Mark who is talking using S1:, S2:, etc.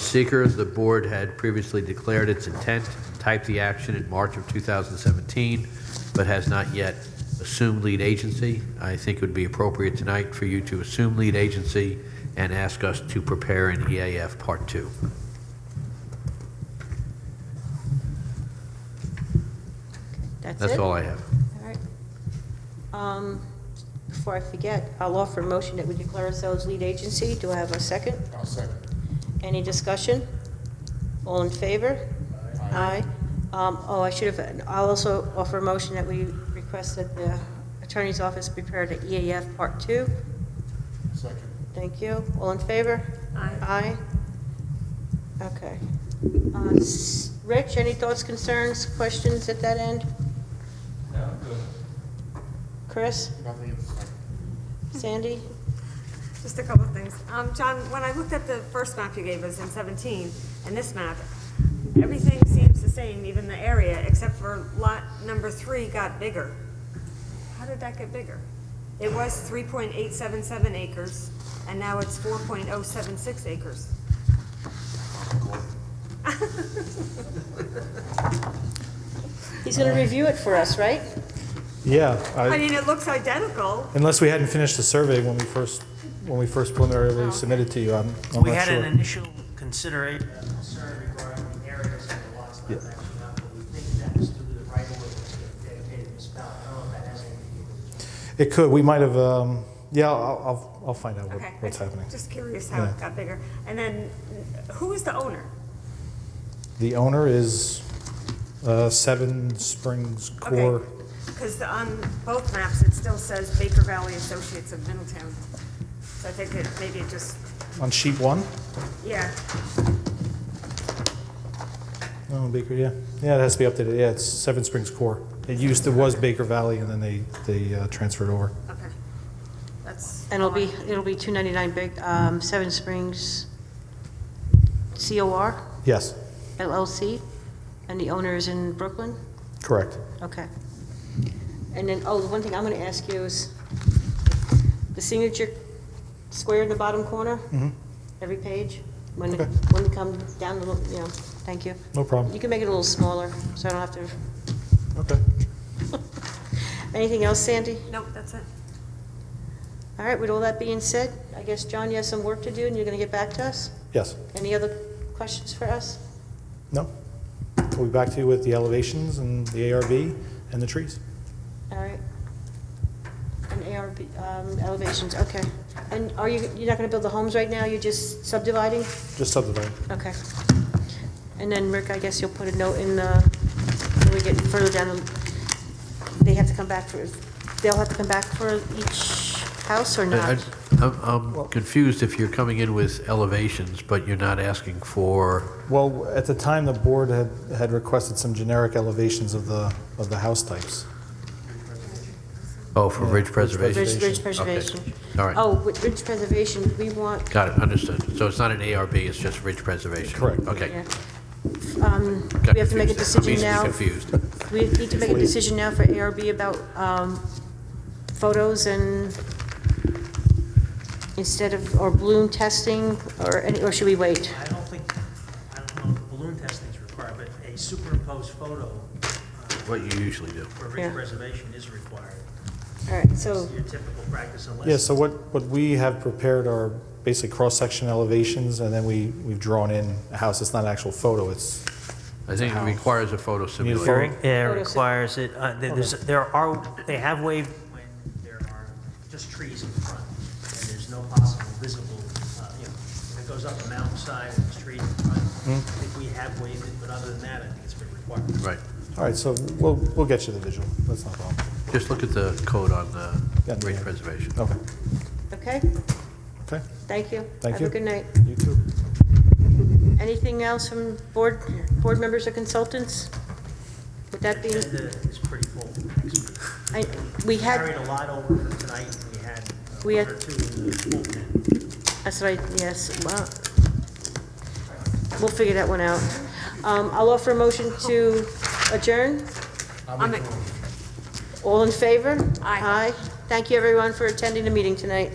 S1: Seeker, the board had previously declared its intent, typed the action in March of 2017, but has not yet assumed lead agency. I think it would be appropriate tonight for you to assume lead agency and ask us to prepare an EAF Part 2.
S2: That's it?
S1: That's all I have.
S2: All right. Um, Before I forget, I'll offer a motion that we declare ourselves lead agency. Do I have a second?
S3: I'll second.
S2: Any discussion? All in favor? Aye. Um, Oh, I should have, I'll also offer a motion that we request that the attorney's office prepare the EAF Part 2.
S3: Second.
S2: Thank you. All in favor? Aye. Aye? Okay. Uh, s- Rich, any thoughts, concerns, questions at that end?
S3: No, good.
S2: Chris?
S3: Nothing in the second.
S2: Sandy?
S4: Just a couple of things. Um, John, when I looked at the first map you gave us in 17 and this map, everything seems the same, even the area, except for lot number three got bigger. How did that get bigger? It was 3.877 acres, and now it's 4.076 acres.
S2: He's going to review it for us, right?
S5: Yeah,
S4: I
S5: I-
S4: mean, it looks identical.
S5: unless we hadn't finished the survey when we first, when we first preliminarily submitted to you, I'm I'm
S6: Oh. We had
S5: not
S6: an
S5: sure.
S6: initial consideration, uh, concern regarding the areas of the lots not matching up, but we think that was due to the right of way that's being dedicated to Ms. Bell. I don't know if that has anything to do with it.
S5: It could, we might have, um, yeah, I'll, I'll- I'll find out what-
S4: Okay.
S5: what's happening.
S4: Just curious how it
S5: Yeah.
S4: got bigger. And then, who is the owner?
S5: The owner is uh, Seven Springs Core.
S4: Because on both maps, it still says Baker Valley Associates of Middletown. So I think it, maybe it just,
S5: On sheet one?
S4: yeah,
S5: Oh, Baker, yeah. Yeah, it has to be updated, yeah, it's Seven Springs Core. It used, it was Baker Valley, and then they, they uh, transferred over.
S4: okay. That's.
S2: And it'll be, it'll be 299 Big, um, Seven Springs COR
S5: Yes,
S2: LLC, and the owner is in Brooklyn?
S5: correct.
S2: Okay. And then, oh, the one thing I'm going to ask you is, the signature square in the bottom corner?
S5: Mhm.
S2: Every page? When,
S5: Okay.
S2: when it comes down, the little- you know, thank you.
S5: No problem.
S2: You can make it a little smaller, so I don't have to,
S5: Okay.
S2: anything else, Sandy?
S4: Nope, that's it.
S2: All right, with all that being said, I guess, John, you have some work to do, and you're going to get back to us?
S5: Yes.
S2: Any other questions for us?
S5: No? We'll be back to you with the elevations and the ARV and the trees.
S2: All right. And ARB, um, elevations, okay. And are you, you're not gonna build the homes right now, you're just subdividing?
S5: Just subdividing.
S2: Okay. And then, Rick, I guess you'll put a note in the, when we get further down, the- they have to come back for, they'll have to come back for each house or
S1: I-
S2: not?
S1: I- I'm I'm confused if you're coming in with elevations, but you're not asking for,
S5: Well, at the time, the board had, had requested some generic elevations of the, of the house types.
S1: oh, for
S5: Yeah,
S1: ridge
S5: ridge
S1: preservation?
S2: Ridge ridge
S5: Okay.
S2: preservation.
S1: All right.
S2: Oh, with ridge preservation, we want,
S1: Got it, understood. So it's not an ARB, it's just ridge preservation?
S5: Correct.
S1: Okay.
S2: yeah. Um,
S1: Got
S2: we have to make a
S1: confused. I'm
S2: decision
S1: easily
S2: now.
S1: confused.
S2: We need to make a decision now for ARB about um, photos and instead of, or bloom testing, or, any- or should we wait?
S6: I don't think, I don't know if balloon testing is required, but a superimposed photo uh,
S1: What you usually do.
S6: for
S2: Yeah.
S6: ridge preservation is required.
S2: All right,
S5: Oh.
S2: so,
S6: It's your typical practice unless.
S5: Yeah, so what, what we have prepared are basically cross-section elevations, and then we, we've drawn in a house. It's not an actual photo, it's,
S1: I think it
S5: House.
S1: requires a photo simulation.
S5: photo?
S6: Yeah,
S2: Photo
S6: it
S2: syn-
S6: requires it, uh, there- there's, there are, they have waived when there are just trees in front, and there's no possible visible, uh, you know, if it goes up a mountainside and there's trees in front, I think we have waived it, but other than that, I think it's been required.
S1: Right.
S5: all right, so we'll, we'll get you the visual. That's not a problem.
S1: Just look at the code on uh,
S5: Yeah,
S1: ridge
S5: yeah.
S1: preservation.
S5: Okay,
S2: okay,
S5: okay,
S2: thank you.
S5: Thank
S2: Have a
S5: you.
S2: good night.
S5: you too.
S2: Anything else from board, board members or consultants? Would that be,
S6: Agenda is pretty full next week.
S2: I- we
S6: Carried
S2: had,
S6: a lot over from tonight, and we had uh,
S2: We
S6: one
S2: had-
S6: or two in the full pen.
S2: that's right, yes, well, we'll figure that one out. Um, I'll offer a motion to adjourn.
S4: I'm a-
S2: All in favor?
S4: Aye.
S2: Aye. Thank you, everyone, for attending the meeting tonight.